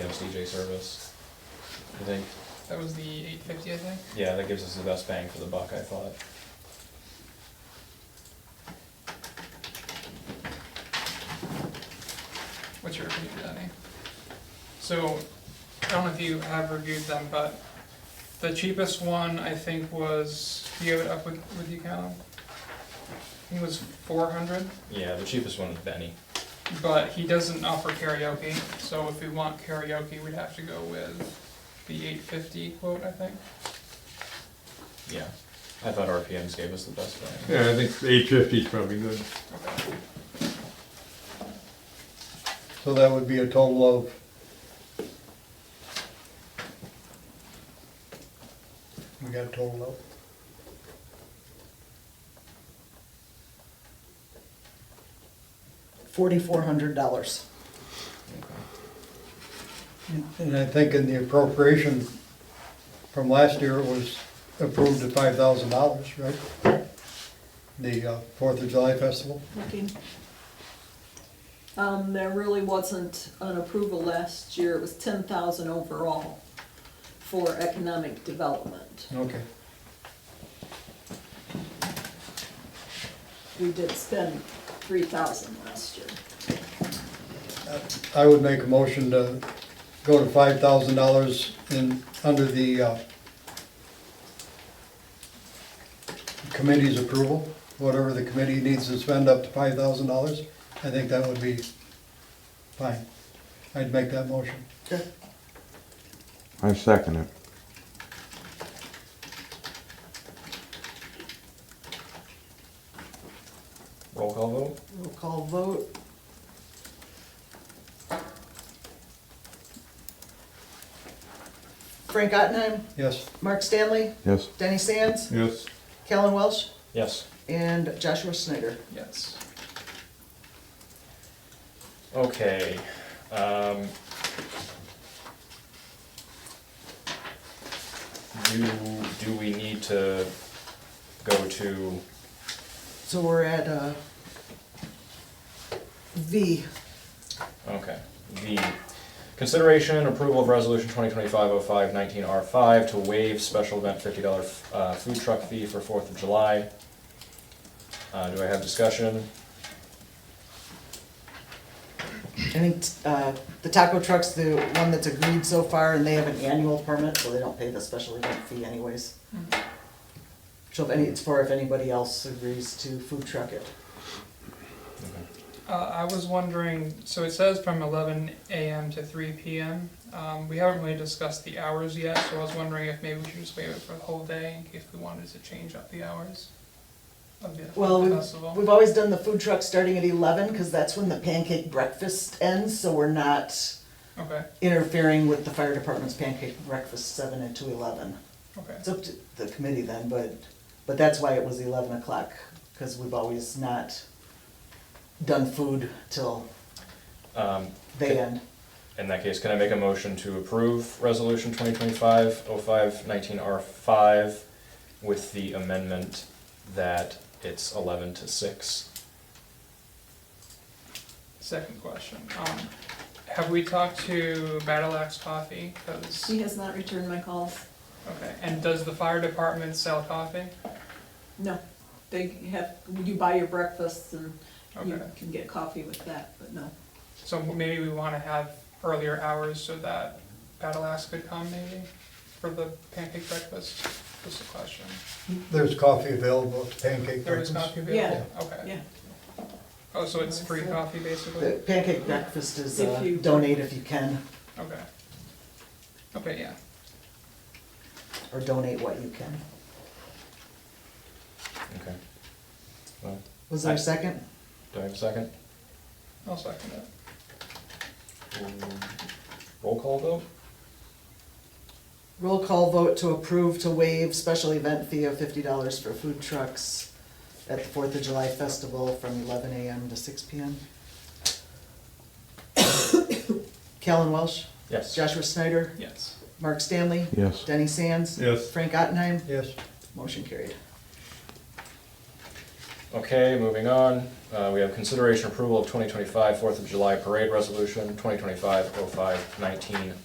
PMCJ service. I think, That was the eight fifty, I think. yeah, that gives us the best bang for the buck, I thought. What's your opinion, Danny? So, I don't know if you have reviewed them, but the cheapest one, I think, was, do you have it up with, with you, Callum? I think it was four hundred, Yeah, the cheapest one is Benny. but he doesn't offer karaoke, so if we want karaoke, we'd have to go with the eight fifty quote, I think. Yeah. I thought RPMs gave us the best bang. Yeah, I think eight fifty is probably good. Okay. So that would be a total of, we got a total of? forty-four hundred dollars. And I think in the appropriation from last year it was approved at five thousand dollars, right? The uh, Fourth of July Festival, Okay. Um, there really wasn't an approval last year, it was ten thousand overall for economic development. okay. We did spend three thousand last year. I would make a motion to go to five thousand dollars in, under the, uh, committee's approval, whatever the committee needs to spend up to five thousand dollars, I think that would be fine. I'd make that motion. I second it. Roll call vote? Roll call vote. Frank Ottenheim, Yes, Mark Stanley, Yes. Denny Sands, Yes, Callan Welsh, Yes. and Joshua Snyder. Yes. Okay, um. Do, do we need to go to, So we're at, uh, V. okay, the consideration and approval of resolution twenty twenty-five oh five nineteen R five to waive special event fifty dollar, uh, food truck fee for Fourth of July. Uh, do I have discussion? I think, uh, the taco truck's the one that's agreed so far, and they have an annual permit, so they don't pay the special event fee anyways. So if any, it's for if anybody else agrees to food truck it. Uh, I was wondering, so it says from eleven AM to three PM. Um, we haven't really discussed the hours yet, so I was wondering if maybe we should just waive it for the whole day in case we wanted to change up the hours of the Well, we've, festival. we've always done the food truck starting at eleven, cause that's when the pancake breakfast ends, so we're not Okay, interfering with the fire department's pancake breakfast seven and to eleven. okay, It's up to the committee then, but, but that's why it was eleven o'clock, cause we've always not done food till Um, they end. In that case, can I make a motion to approve resolution twenty twenty-five oh five nineteen R five with the amendment that it's eleven to six? second question. Um, have we talked to Battle Axe Coffee? 'Cause- She has not returned my calls. okay, and does the fire department sell coffee? No, they have, you buy your breakfast and you Okay. can get coffee with that, but no. So maybe we wanna have earlier hours so that Battle Axe could come maybe for the pancake breakfast? Just a question. there's coffee available at the pancake There is breakfast. coffee available? Okay. Yeah, Oh, so it's free coffee The basically? pancake breakfast is, If uh, you- donate if you can, Okay. Okay, yeah. or donate what you can. Okay. Well, Was there a second? do I have a second? I'll second it. Roll call vote? Roll call vote to approve to waive special event fee of fifty dollars for food trucks at the Fourth of July Festival from eleven AM to six PM. Callan Welsh, Yes. Joshua Snyder, Yes. Mark Stanley, Yes. Denny Sands, yes, Frank Ottenheim, Yes, motion carried. Okay, moving on, uh, we have oh consideration approval of 2025 Fourth of July Parade Resolution, 2025 05 19